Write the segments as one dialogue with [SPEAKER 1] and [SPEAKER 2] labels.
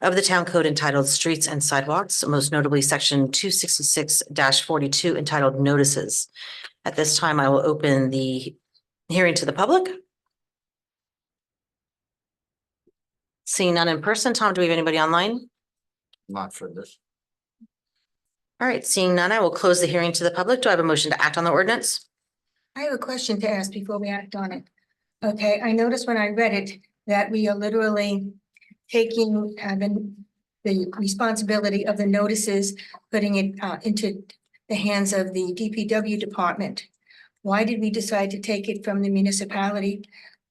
[SPEAKER 1] of the town code entitled Streets and Sidewalks, most notably section two sixty-six forty-two entitled Notices. At this time, I will open the hearing to the public. Seeing none in person. Tom, do we have anybody online?
[SPEAKER 2] Not for this.
[SPEAKER 1] All right, seeing none, I will close the hearing to the public. Do I have a motion to act on the ordinance?
[SPEAKER 3] I have a question to ask before we act on it. Okay, I noticed when I read it that we are literally taking uh, the, the responsibility of the notices, putting it uh, into the hands of the DPW department. Why did we decide to take it from the municipality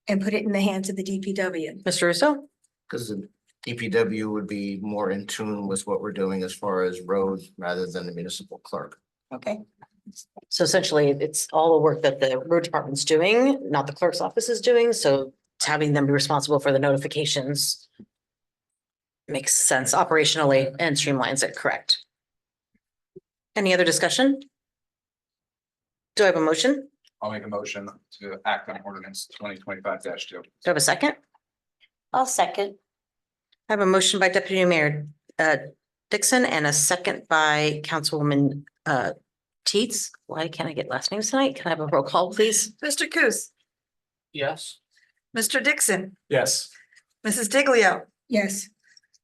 [SPEAKER 3] and put it in the hands of the DPW?
[SPEAKER 1] Mr. Russo?
[SPEAKER 2] Because the DPW would be more in tune with what we're doing as far as roads rather than the municipal clerk.
[SPEAKER 3] Okay,
[SPEAKER 1] So essentially, it's all the work that the road department's doing, not the clerk's office is doing, so it's having them be responsible for the notifications makes sense operationally and streamlines it, correct? Any other discussion? Do I have a motion? Do
[SPEAKER 4] I'll make a motion to act on ordinance twenty twenty-five two.
[SPEAKER 1] I have a second?
[SPEAKER 5] I'll second.
[SPEAKER 1] I have a motion by Deputy Mayor uh, Dixon and a second by Councilwoman uh, Teets. Why can't I get last names tonight? Can I have a roll call, please?
[SPEAKER 6] Mr. Coos,
[SPEAKER 2] Yes.
[SPEAKER 6] Mr. Dixon,
[SPEAKER 4] Yes.
[SPEAKER 6] Mrs. Diglio,
[SPEAKER 3] yes,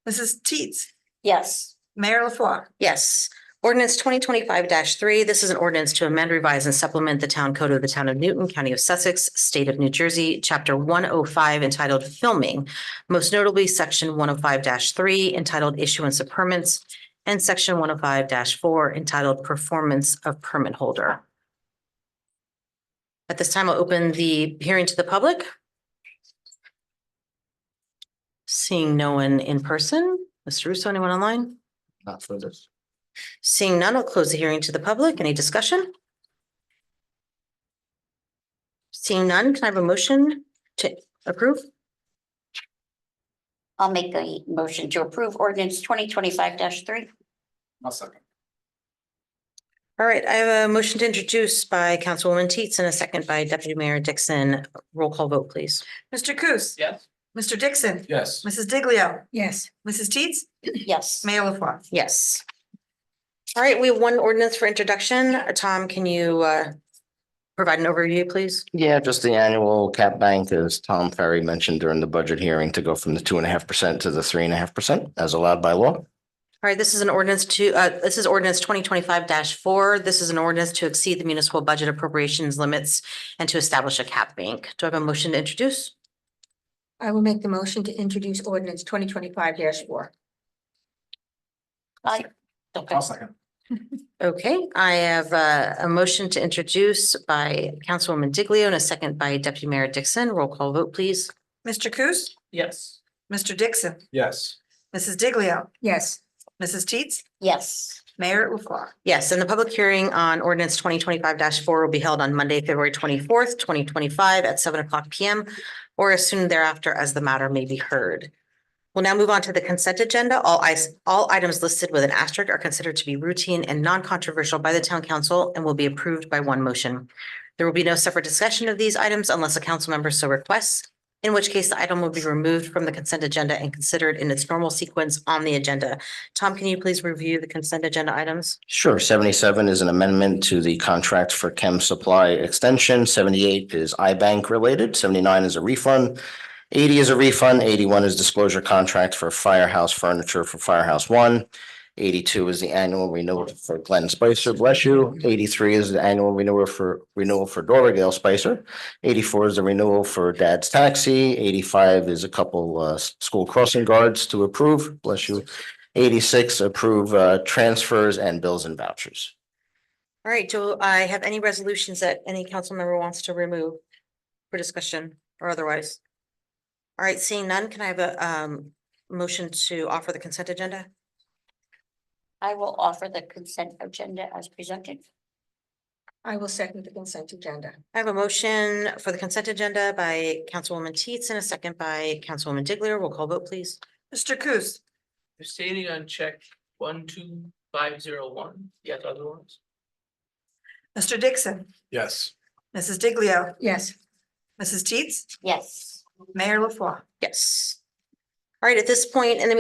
[SPEAKER 6] Mrs. Teets,
[SPEAKER 5] Yes,
[SPEAKER 6] Mayor LaFois.
[SPEAKER 1] Yes. Ordinance twenty twenty-five three, this is an ordinance to amend, revise, and supplement the town code of the town of Newton, county of Sussex, state of New Jersey, chapter one oh five entitled Filming, most notably section one oh five three entitled Issuance of Permits, and section one oh five four entitled Performance of Permit Holder. At this time, I'll open the hearing to the public. Seeing no one in person, Mr. Russo, anyone online?
[SPEAKER 2] Not for this.
[SPEAKER 1] Seeing none, I'll close the hearing to the public. Any discussion? Seeing none, can I have a motion to approve?
[SPEAKER 5] I'll make a motion to approve ordinance twenty twenty-five three.
[SPEAKER 4] I'll second.
[SPEAKER 1] All right, I have a motion to introduce by Councilwoman Teets and a second by Deputy Mayor Dixon. Roll call vote, please.
[SPEAKER 6] Mr. Coos.
[SPEAKER 4] Yes.
[SPEAKER 6] Mr. Dixon,
[SPEAKER 4] Yes.
[SPEAKER 6] Mrs. Diglio,
[SPEAKER 3] yes.
[SPEAKER 6] Mrs. Teets,
[SPEAKER 5] Yes,
[SPEAKER 6] Mayor LaFois.
[SPEAKER 1] Yes. All right, we have one ordinance for introduction. Uh, Tom, can you uh, provide an overview, please?
[SPEAKER 2] Yeah, just the annual cap bank, as Tom Ferry mentioned during the budget hearing, to go from the two and a half percent to the three and a half percent as allowed by law.
[SPEAKER 1] All right, this is an ordinance to, uh, this is ordinance twenty twenty-five four. This is an ordinance to exceed the municipal budget appropriations limits and to establish a cap bank. Do I have a motion to introduce?
[SPEAKER 3] I will make the motion to introduce ordinance twenty twenty-five four.
[SPEAKER 5] I, okay,
[SPEAKER 4] I'll second.
[SPEAKER 1] Okay, I have uh, a, a motion to introduce by Councilwoman Diglio and a second by Deputy Mayor Dixon. Roll call vote, please.
[SPEAKER 6] Mr. Coos,
[SPEAKER 4] Yes.
[SPEAKER 6] Mr. Dixon,
[SPEAKER 4] Yes.
[SPEAKER 6] Mrs. Diglio,
[SPEAKER 3] Yes,
[SPEAKER 6] Mrs. Teets,
[SPEAKER 5] yes,
[SPEAKER 6] Mayor LaFois.
[SPEAKER 1] Yes, and the public hearing on ordinance twenty twenty-five four will be held on Monday, February twenty-fourth, twenty twenty-five at seven o'clock PM or as soon thereafter as the matter may be heard. We'll now move on to the consent agenda. All I, all items listed with an asterisk are considered to be routine and non-controversial by the town council and will be approved by one motion. There will be no separate discussion of these items unless a council member so requests, in which case the item will be removed from the consent agenda and considered in its normal sequence on the agenda. Tom, can you please review the consent agenda items?
[SPEAKER 2] Sure, seventy-seven is an amendment to the contract for chem supply extension, seventy-eight is iBank related, seventy-nine is a refund. Eighty is a refund, eighty-one is disclosure contract for firehouse furniture for Firehouse One. Eighty-two is the annual renewal for Glenn Spicer, bless you. Eighty-three is the annual renewal for renewal for Dorogale Spicer. Eighty-four is the renewal for Dad's Taxi, eighty-five is a couple uh s- school crossing guards to approve, bless you. Eighty-six, approve uh, transfers and bills and vouchers.
[SPEAKER 1] All right, do I have any resolutions that any council member wants to remove for discussion or otherwise? All right, seeing none, can I have a um motion to offer the consent agenda?
[SPEAKER 5] I will offer the consent agenda as presented.
[SPEAKER 3] I will second the consent agenda.
[SPEAKER 1] I have a motion for the consent agenda by Councilwoman Teets and a second by Councilwoman Diglio. Roll call vote, please.
[SPEAKER 6] Mr. Coos,
[SPEAKER 7] Abstaining on check one, two, five, zero, one, yes, other ones?
[SPEAKER 6] Mr. Dixon,
[SPEAKER 4] Yes.
[SPEAKER 6] Mrs. Diglio,
[SPEAKER 3] Yes,
[SPEAKER 6] Mrs. Teets,
[SPEAKER 5] Yes.
[SPEAKER 6] Mayor LaFois.
[SPEAKER 1] Yes. All right, at this point, in the meantime,